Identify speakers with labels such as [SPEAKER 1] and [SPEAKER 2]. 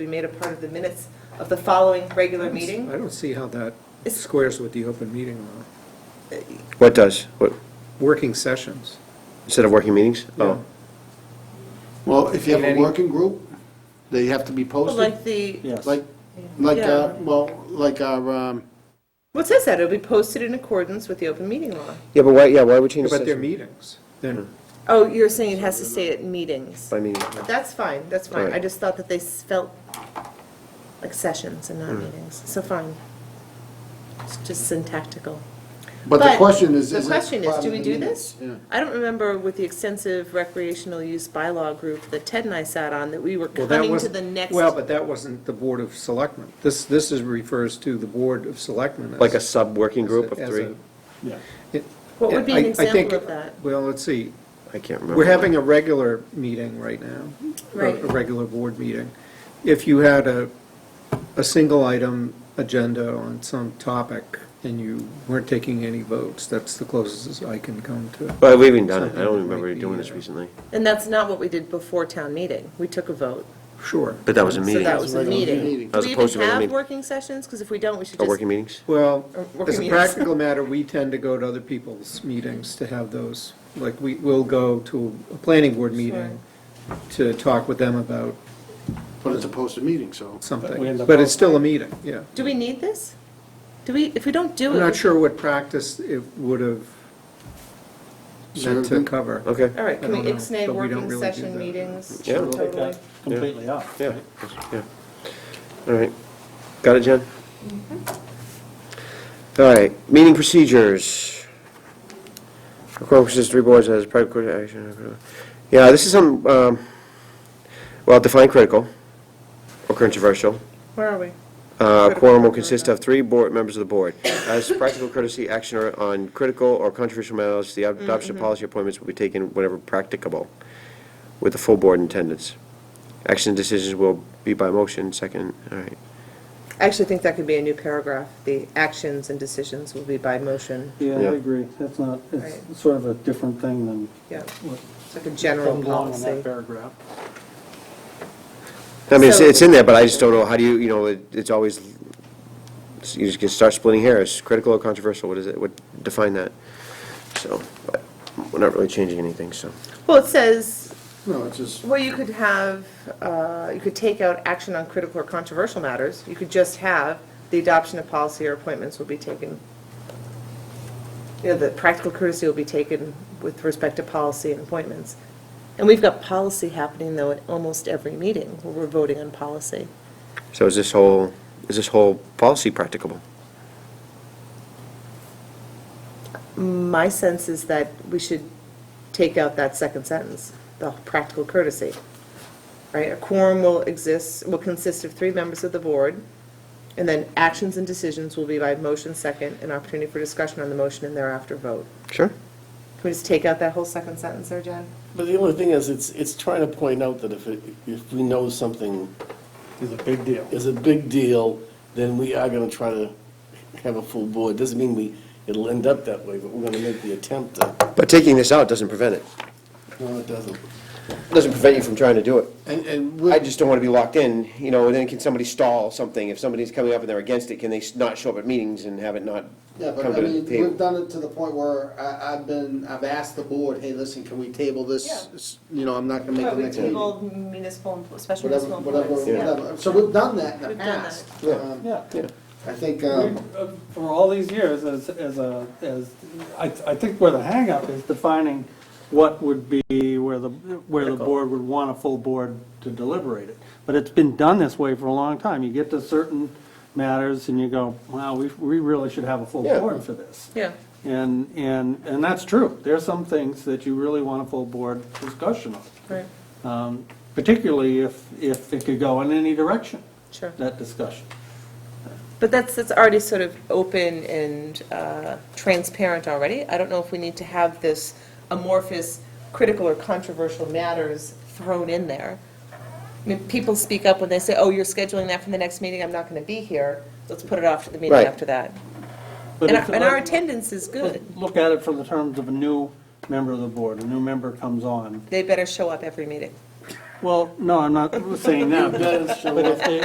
[SPEAKER 1] be made a part of the minutes of the following regular
[SPEAKER 2] I
[SPEAKER 1] meeting.
[SPEAKER 2] don't see how that
[SPEAKER 1] It's-
[SPEAKER 2] squares with the open meeting law.
[SPEAKER 3] What does? What,
[SPEAKER 2] Working sessions.
[SPEAKER 3] instead of working meetings? Oh,
[SPEAKER 4] Well, if you have
[SPEAKER 2] Any-
[SPEAKER 4] a working group, they have to be
[SPEAKER 1] Well,
[SPEAKER 4] posted,
[SPEAKER 1] Like the,
[SPEAKER 4] like, like,
[SPEAKER 1] Yeah.
[SPEAKER 4] uh, well, like our, um,
[SPEAKER 1] what says that? It'll be posted in accordance with the open meeting law.
[SPEAKER 3] yeah, but why, yeah, why would you?
[SPEAKER 2] But they're meetings, then,
[SPEAKER 1] Oh, you're saying it has to stay at meetings.
[SPEAKER 3] By meeting.
[SPEAKER 1] That's fine, that's fine. I
[SPEAKER 3] Right.
[SPEAKER 1] just thought that they s- felt like sessions and
[SPEAKER 4] Hmm.
[SPEAKER 1] not meetings, so fine. It's just syntactical.
[SPEAKER 4] but the question is, is
[SPEAKER 1] The
[SPEAKER 4] it
[SPEAKER 1] question is,
[SPEAKER 4] part
[SPEAKER 1] do
[SPEAKER 4] of
[SPEAKER 1] we
[SPEAKER 4] the
[SPEAKER 1] do
[SPEAKER 4] minutes?
[SPEAKER 1] this?
[SPEAKER 4] Yeah.
[SPEAKER 1] I don't remember with the extensive recreational use bylaw group that Ted and I sat on, that we were
[SPEAKER 2] well, that
[SPEAKER 1] coming to
[SPEAKER 2] wasn't.
[SPEAKER 1] the next.
[SPEAKER 2] Well, but that wasn't the Board of Selectmen. This, this is, refers to the Board of Selectmen. as-
[SPEAKER 3] Like a sub-working group of
[SPEAKER 2] as a-
[SPEAKER 3] three?
[SPEAKER 2] It-
[SPEAKER 1] What would be an
[SPEAKER 2] I- I think-
[SPEAKER 1] example of that?
[SPEAKER 2] Well, let's see.
[SPEAKER 3] I can't remember.
[SPEAKER 2] We're having a regular meeting right now. a-
[SPEAKER 1] Right.
[SPEAKER 2] A regular board meeting. If you had a, a single item agenda on some topic and you weren't taking any votes, that's the closest I can come to.
[SPEAKER 3] Well, we've even done it. I don't
[SPEAKER 2] Something might
[SPEAKER 3] remember
[SPEAKER 2] be,
[SPEAKER 3] doing this
[SPEAKER 2] uh,
[SPEAKER 3] recently.
[SPEAKER 1] And that's not what we did before town meeting. We took a vote.
[SPEAKER 2] Sure.
[SPEAKER 3] But that was a
[SPEAKER 1] So
[SPEAKER 3] meeting.
[SPEAKER 1] that was a
[SPEAKER 4] Regular
[SPEAKER 1] meeting.
[SPEAKER 4] meeting.
[SPEAKER 1] Do
[SPEAKER 3] As
[SPEAKER 1] we even
[SPEAKER 3] opposed to regular
[SPEAKER 1] have
[SPEAKER 3] meeting.
[SPEAKER 1] working sessions? Because if we don't, we should
[SPEAKER 3] Oh,
[SPEAKER 1] just.
[SPEAKER 3] working meetings?
[SPEAKER 2] Well,
[SPEAKER 1] Or
[SPEAKER 2] as a
[SPEAKER 1] meetings.
[SPEAKER 2] practical matter, we tend to go to other people's meetings to have those. Like, we will go to a planning board meeting to talk with them about
[SPEAKER 4] But it's a posted meeting, so.
[SPEAKER 2] something. But it's still a meeting, yeah.
[SPEAKER 1] Do we need this? Do we, if we don't do it?
[SPEAKER 2] I'm
[SPEAKER 1] we-
[SPEAKER 2] not sure what practice it would have meant to
[SPEAKER 4] Serving?
[SPEAKER 2] cover.
[SPEAKER 3] Okay,
[SPEAKER 1] All right,
[SPEAKER 2] I
[SPEAKER 1] can
[SPEAKER 2] don't
[SPEAKER 1] we
[SPEAKER 2] know,
[SPEAKER 1] ixnay
[SPEAKER 2] but we don't
[SPEAKER 1] working
[SPEAKER 2] really do
[SPEAKER 1] session
[SPEAKER 2] that.
[SPEAKER 1] meetings?
[SPEAKER 3] Yeah.
[SPEAKER 5] Take
[SPEAKER 1] Totally.
[SPEAKER 5] that completely up.
[SPEAKER 3] yeah, yeah. All right. Got it, Jen? All right, meeting procedures. Requirements, three boards as private court action. Yeah, this is some, um, well, define critical or controversial.
[SPEAKER 1] Where are we?
[SPEAKER 3] Uh,
[SPEAKER 1] Critical
[SPEAKER 3] Quorum will
[SPEAKER 1] or
[SPEAKER 3] consist of three board, members of the board. As practical courtesy, action or- on critical or controversial matters, the adoption of policy appointments will be taken whenever practicable, with the full board in attendance. Action decisions will be by motion, second, all right.
[SPEAKER 1] I actually think that could be a new paragraph. The actions and decisions will be by motion.
[SPEAKER 5] Yeah, I
[SPEAKER 3] Yeah.
[SPEAKER 5] agree. That's not,
[SPEAKER 1] Right.
[SPEAKER 5] it's sort of a different thing than
[SPEAKER 1] Yeah,
[SPEAKER 5] what
[SPEAKER 1] it's like a general
[SPEAKER 5] comes along in that
[SPEAKER 1] policy.
[SPEAKER 5] paragraph.
[SPEAKER 3] I mean, it's,
[SPEAKER 1] So-
[SPEAKER 3] it's in there, but I just don't know, how do you, you know, it- it's always, you just can start splitting hairs, critical or controversial, what is it, what, define that. So, but we're not really changing anything, so.
[SPEAKER 1] Well, it says,
[SPEAKER 4] No, it's just,
[SPEAKER 1] well, you could have, uh, you could take out action on critical or controversial matters. You could just have the adoption of policy or appointments will be taken. You know, the practical courtesy will be taken with respect to policy and appointments. And we've got policy happening, though, at almost every meeting where we're voting on policy.
[SPEAKER 3] So is this whole, is this whole policy practicable?
[SPEAKER 1] My sense is that we should take out that second sentence, the practical courtesy. Right, a quorum will exist, will consist of three members of the board, and then actions and decisions will be by motion second, an opportunity for discussion on the motion and thereafter vote.
[SPEAKER 3] Sure.
[SPEAKER 1] Can we just take out that whole second sentence there, Jen?
[SPEAKER 6] But the only thing is, it's, it's trying to point out that if, it- if we know something
[SPEAKER 5] It's a big deal.
[SPEAKER 6] is a big deal, then we are gonna try to have a full board. Doesn't mean we, it'll end up that way, but we're gonna make the attempt to,
[SPEAKER 3] But taking this out doesn't prevent it.
[SPEAKER 6] no, it doesn't.
[SPEAKER 3] Doesn't prevent you from trying to do it.
[SPEAKER 4] and, and
[SPEAKER 3] I
[SPEAKER 4] we're,
[SPEAKER 3] just don't want to be locked in, you know, and then can somebody stall something? If somebody's coming up and they're against it, can they s- not show up at meetings and have it not
[SPEAKER 4] yeah, but
[SPEAKER 3] come
[SPEAKER 4] I
[SPEAKER 3] to the
[SPEAKER 4] mean, we've
[SPEAKER 3] table?
[SPEAKER 4] done it to the point where I, I've been, I've asked the board, hey, listen, can we table this?
[SPEAKER 1] Yeah.
[SPEAKER 4] S- You know, I'm not gonna make the next meeting.
[SPEAKER 1] municipal, special
[SPEAKER 4] Whatever, whatever, whatever. So we've done that in the
[SPEAKER 1] We've done
[SPEAKER 4] past.
[SPEAKER 3] Yeah.
[SPEAKER 4] Um,
[SPEAKER 5] Yeah.
[SPEAKER 4] I think,
[SPEAKER 5] We-
[SPEAKER 4] um,
[SPEAKER 5] uh, For all these years, as, as a, as, I, I think where the hangup is defining what would be where the, where the board would want a full board to deliberate it. But it's been done this way for a long time. You get to certain matters and you go, wow, we, we really should have a full
[SPEAKER 3] Yeah.
[SPEAKER 5] board for this.
[SPEAKER 1] Yeah.
[SPEAKER 5] And, and, and that's true. There are some things that you really want a full board discussion on,
[SPEAKER 1] Right,
[SPEAKER 5] um, particularly if, if it could go in any direction,
[SPEAKER 1] sure.
[SPEAKER 5] that discussion.
[SPEAKER 1] But that's, that's already sort of open and uh, transparent already. I don't know if we need to have this amorphous, critical or controversial matters thrown in there. I mean, people speak up when they say, oh, you're scheduling that for the next meeting, I'm not going to be here, let's put it off to the meeting
[SPEAKER 3] Right.
[SPEAKER 1] after that.
[SPEAKER 5] But
[SPEAKER 1] And
[SPEAKER 5] if-
[SPEAKER 1] our- and our attendance is good.
[SPEAKER 5] Look at it from the terms of a new member of the board, a new member comes on.
[SPEAKER 1] They better show up every meeting.
[SPEAKER 5] Well, no, I'm not saying that. But if they-